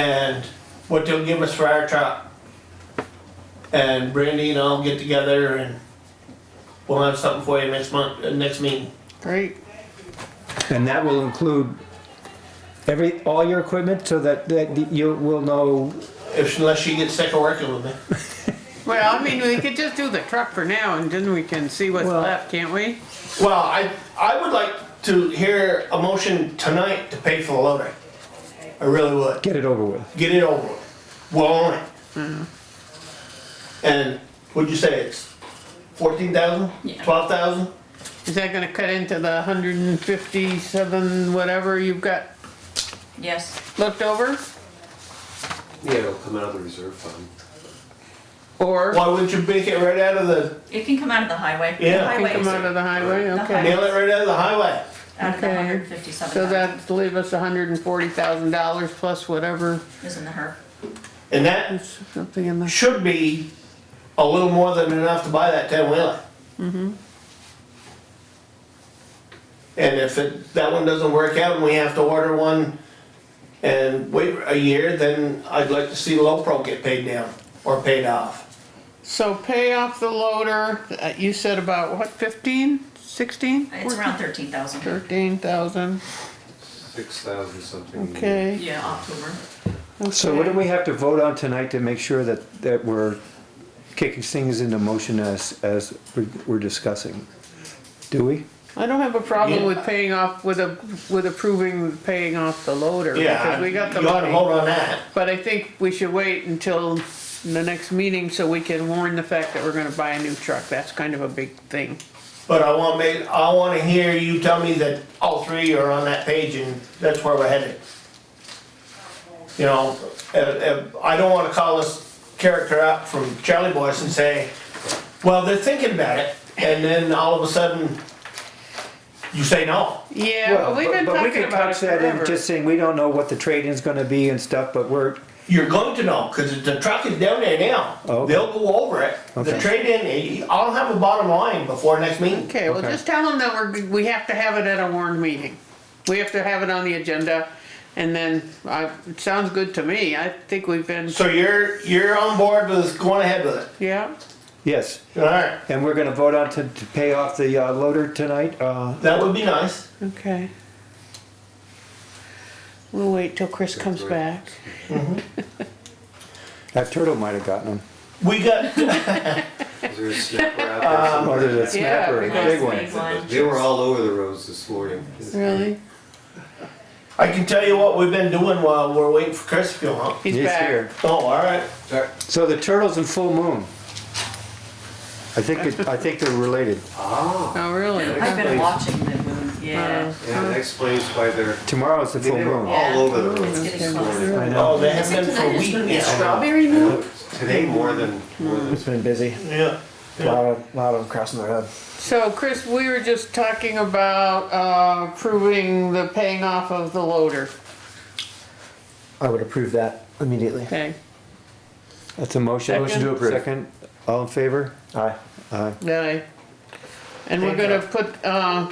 and what they'll give us for our truck. And Brandy and I'll get together and we'll have something for you next month, uh, next meeting. Great. And that will include every, all your equipment so that, that you will know, If, unless she gets sick of working with me. Well, I mean, we could just do the truck for now and then we can see what's Well- left, can't we? Well, I, I would like to hear a motion tonight to pay for the loader. I really would. get it over with. Get it over with. We'll own it. And what'd you say, it's fourteen thousand? Yeah. Twelve thousand? Is that gonna cut into the hundred and fifty-seven, whatever you've got Yes, left over? Yeah, it'll come out of the reserve fund. Or Why wouldn't you make it right out of the, it can come out of the highway. Yeah. The take highway them is out of the highway, The okay. highway. nail it right out of the highway? out of the Okay. hundred fifty-seven So thousand, that'd leave us hundred and forty thousand dollars plus whatever, is in the HERF. And that something in the, should be a little more than enough to buy that ten wheeler. And if it, that one doesn't work out and we have to order one and wait a year, then I'd like to see Lopro get paid down or paid off. so pay off the loader, uh, you said about what, fifteen, sixteen? It's around thirteen thousand. Thirteen thousand, Six thousand something. okay. Yeah, October. So what do we have to vote on tonight to make sure that, that we're kicking things into motion as, as we're- we're discussing? Do we? I don't have a problem with paying off, with a, with approving paying off the loader, Yeah, because we you got the ought to money. hold on that. But I think we should wait until the next meeting so we can warn the fact that we're gonna buy a new truck, that's kind of a big thing. But I want me, I wanna hear you tell me that all three are on that page and that's where we're headed. You know, uh, uh, I don't wanna call this character out from Charlie Boyce and say, well, they're thinking about it, and then all of a sudden, you say no. Yeah, but we've been Well, but we talking could about it couch that in forever. Just saying, we don't know what the trade-in's gonna be and stuff, but we're, You're going to know, cause the truck is down there now, Oh, Okay. they'll go over it, the Okay. trade-in, I'll have a bottom line before next meeting. Okay, well, Okay. just tell them that we're, we have to have it at a warned meeting. We have to have it on the agenda, and then, I, it sounds good to me, I think we've been, So you're, you're on board with going ahead with it, yeah, yes. alright, And we're gonna vote on to, to pay off the uh, loader tonight, uh, that would be nice. okay. We'll wait till Chris comes back. that turtle might have gotten him. We got, Is there a snapper out Oh, there's a Yeah, snapper, a because big Nice one. big there? They were all over the roads this morning. Really? I can tell you what we've been doing while we're waiting for Chris to come home. He's He's back. here. Oh, all right. So the turtles and full moon. I think it, I think they're related. Ah, Oh, really? I've been watching the moon, yeah. yeah, that explains why they're, Tomorrow is the full they were moon. Yeah. all over the roads It's this getting morning. closer. I Oh, know. they have been for a It's week gonna be a now. strawberry I moon? know it's Today more than, more than, It's been busy. Yeah. A lot of, lot of them crossing their head. So, Chris, we were just talking about, uh, proving the paying off of the loader I would approve that immediately. Okay. That's a motion. Motion to approve. Second, all in favor? Aye. Aye. Yeah. And we're Thank gonna put, uh,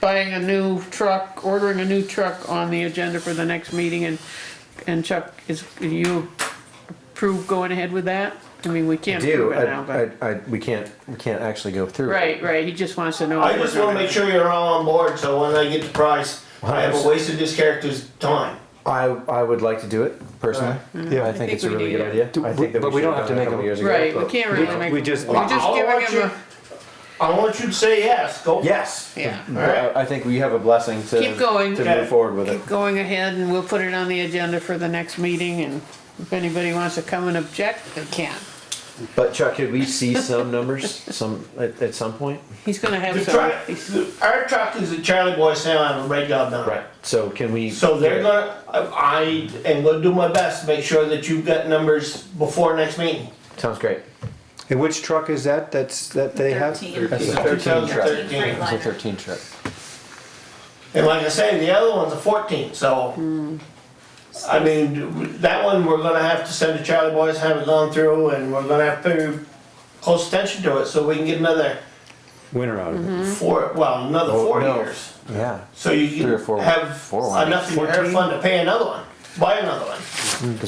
buying a new truck, ordering a new truck on the agenda for the next meeting and, and Chuck, is, you approve going ahead with that? I mean, we can't Do, prove it I, now, but, I, I, we can't, we can't actually go through. it. right, right, he just wants to know. I if just we're wanna gonna- make sure you're all on board, so when I get the price, I haven't 100%. wasted this character's time. I, I would like to do it personally. Yeah, I think it's a we really do, good yeah. idea. I think that but we should don't have have to done it make a couple them- years ago, Right, we but- can't really make. We just, We're just I'll giving let him you- I want you to say yes, go. Yes. Yeah. I I think we have a blessing to. Keep going. To Okay. move forward with a, it. keep going ahead and we'll put it on the agenda for the next meeting and if anybody wants to come and object, they can. But Chuck, could we see some numbers, some, at, at some point? He's gonna have The some. truck, the- our truck is a Charlie Boy Sound and a red dog down. Right, so can we? So they're gonna, I, I am gonna do my best to make sure that you've got numbers before next meeting. Sounds great. and which truck is that, that's, that they have? Thirteen. That's a It's a 2013. thirteen truck. It's a Freightliner. thirteen truck. And like I say, the other one's a fourteen, so. I mean, that one, we're gonna have to send to Charlie Boys, have it gone through, and we're gonna have to pay close attention to it, so we can get another Winter out of it. four, well, another Oh, four no. years. Yeah. So you Three or four- can have four ones. enough in your hair fund to pay another one, buy another one.